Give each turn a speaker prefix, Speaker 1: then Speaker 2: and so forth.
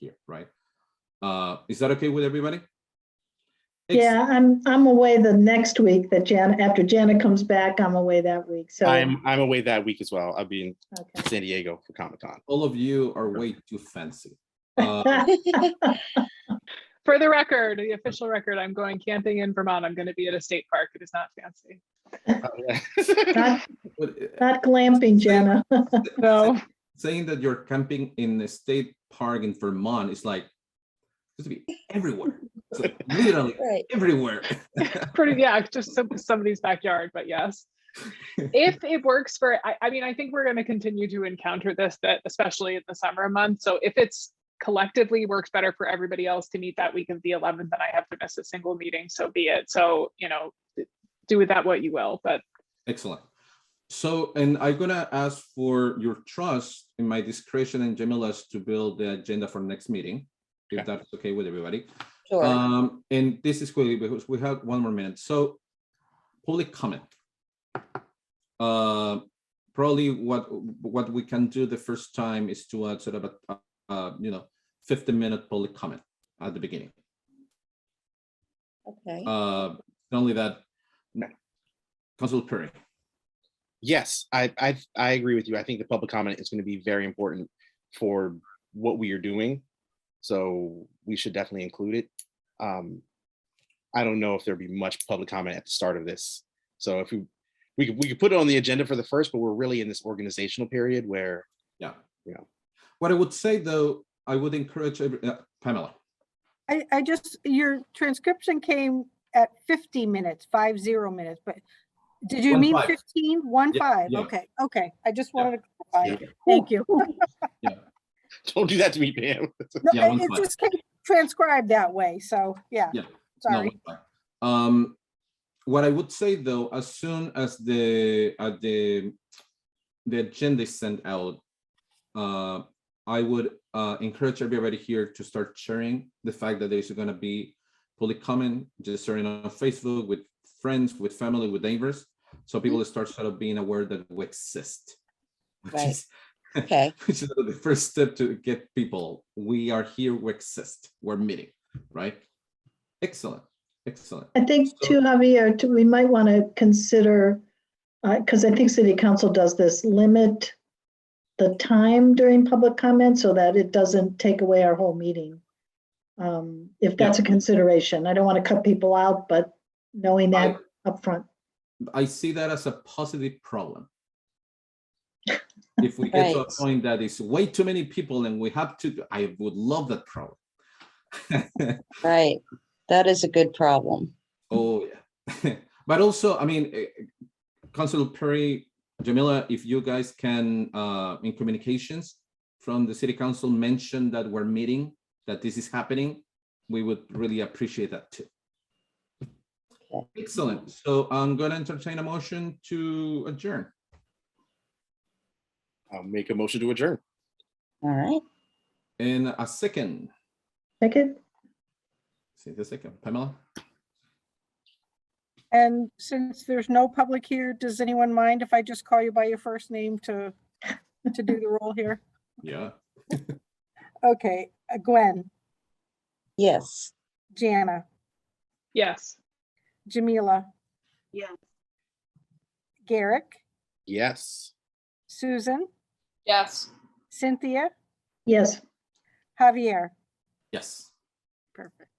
Speaker 1: here, right? Uh, is that okay with everybody?
Speaker 2: Yeah, I'm, I'm away the next week that Jan, after Janet comes back, I'm away that week, so.
Speaker 3: I'm, I'm away that week as well. I'll be
Speaker 2: okay.
Speaker 3: in San Diego for Comic Con.
Speaker 1: All of you are way too fancy. Uh,
Speaker 4: For the record, the official record, I'm going camping in Vermont. I'm going to be at a state park. It is not fancy.
Speaker 2: Not
Speaker 1: but, uh,
Speaker 2: not glamping, Jenna.
Speaker 4: No,
Speaker 1: Saying that you're camping in a state park in Vermont is like, it's to be everywhere, It's like literally
Speaker 5: Right.
Speaker 1: everywhere.
Speaker 4: pretty, yeah, it's just some- somebody's backyard, but yes. If it works for, I, I mean, I think we're going to continue to encounter this, that especially in the summer months. So if it's collectively works better for everybody else to meet that week of the 11th, then I have to miss a single meeting, so be it. So, you know, do with that what you will, but
Speaker 1: Excellent. So, and I'm gonna ask for your trust in my discretion and Jamila's to build the agenda for next meeting, if
Speaker 3: Okay.
Speaker 1: that's okay with everybody.
Speaker 5: Sure.
Speaker 1: Um, and this is quickly because we have one more minute. So public comment. Uh, probably what, what we can do the first time is to add sort of a, uh, you know, fifteen minute public comment at the beginning.
Speaker 5: Okay.
Speaker 1: Uh, not only that, Council Perry.
Speaker 3: Yes, I, I, I agree with you. I think the public comment is going to be very important for what we are doing. So we should definitely include it. Um, I don't know if there'll be much public comment at the start of this. So if we, we could, we could put it on the agenda for the first, but we're really in this organizational period where,
Speaker 1: What I would say though, I would encourage every- uh, Pamela.
Speaker 6: I, I just, your transcription came at fifty minutes, five zero minutes, but did you
Speaker 1: One
Speaker 6: mean
Speaker 1: five.
Speaker 6: fifteen? One
Speaker 1: Yeah,
Speaker 6: five?
Speaker 1: yeah.
Speaker 6: Okay, okay. I just
Speaker 1: Yeah.
Speaker 6: wanted to clarify. Thank you.
Speaker 3: don't do that to me, Pam.
Speaker 6: No,
Speaker 1: Yeah, one
Speaker 6: It
Speaker 1: five.
Speaker 6: it just came transcribed that way, so, yeah.
Speaker 1: Yeah. No,
Speaker 6: Sorry.
Speaker 1: it's fine. Um, what I would say though, as soon as the, at the, the agenda is sent out, uh, I would, uh, encourage everybody here to start sharing the fact that there's gonna be public comment, just sharing on Facebook with friends, with family, with neighbors. So people start sort of being aware that we exist. which
Speaker 5: Right.
Speaker 1: is-
Speaker 5: Okay.
Speaker 1: which is the first step to get people, we are here, we exist, we're meeting, right? Excellent, excellent.
Speaker 2: I think too, Javier, too, we might want to consider, because I think city council does this, limit the time during public comment so that it doesn't take away our whole meeting. Um, If that's a consideration, I don't want to cut people out, but knowing that upfront.
Speaker 1: I see that as a positive problem. If we get to a
Speaker 5: Right.
Speaker 1: point that is way too many people and we have to, I would love that problem.
Speaker 5: Right. That is a good problem.
Speaker 1: Oh, yeah. But also, I mean, eh, Councilor Perry, Jamila, if you guys can, uh, in communications from the city council, mention that we're meeting, that this is happening, we would really appreciate that too.
Speaker 5: Okay.
Speaker 1: Excellent. So I'm gonna entertain a motion to adjourn.
Speaker 3: I'll make a motion to adjourn.
Speaker 5: All right.
Speaker 1: In a second,
Speaker 2: Second,
Speaker 1: see the second, Pamela?
Speaker 6: And since there's no public here, does anyone mind if I just call you by your first name to, to do the roll here?
Speaker 1: Yeah.
Speaker 6: Okay, uh, Gwen,
Speaker 5: Yes.
Speaker 6: Jana,
Speaker 4: yes.
Speaker 6: Jamila.
Speaker 7: Yes.
Speaker 6: Garrick,
Speaker 3: Yes.
Speaker 6: Susan,
Speaker 4: Yes.
Speaker 6: Cynthia,
Speaker 2: yes.
Speaker 6: Javier.
Speaker 1: Yes.
Speaker 6: Perfect.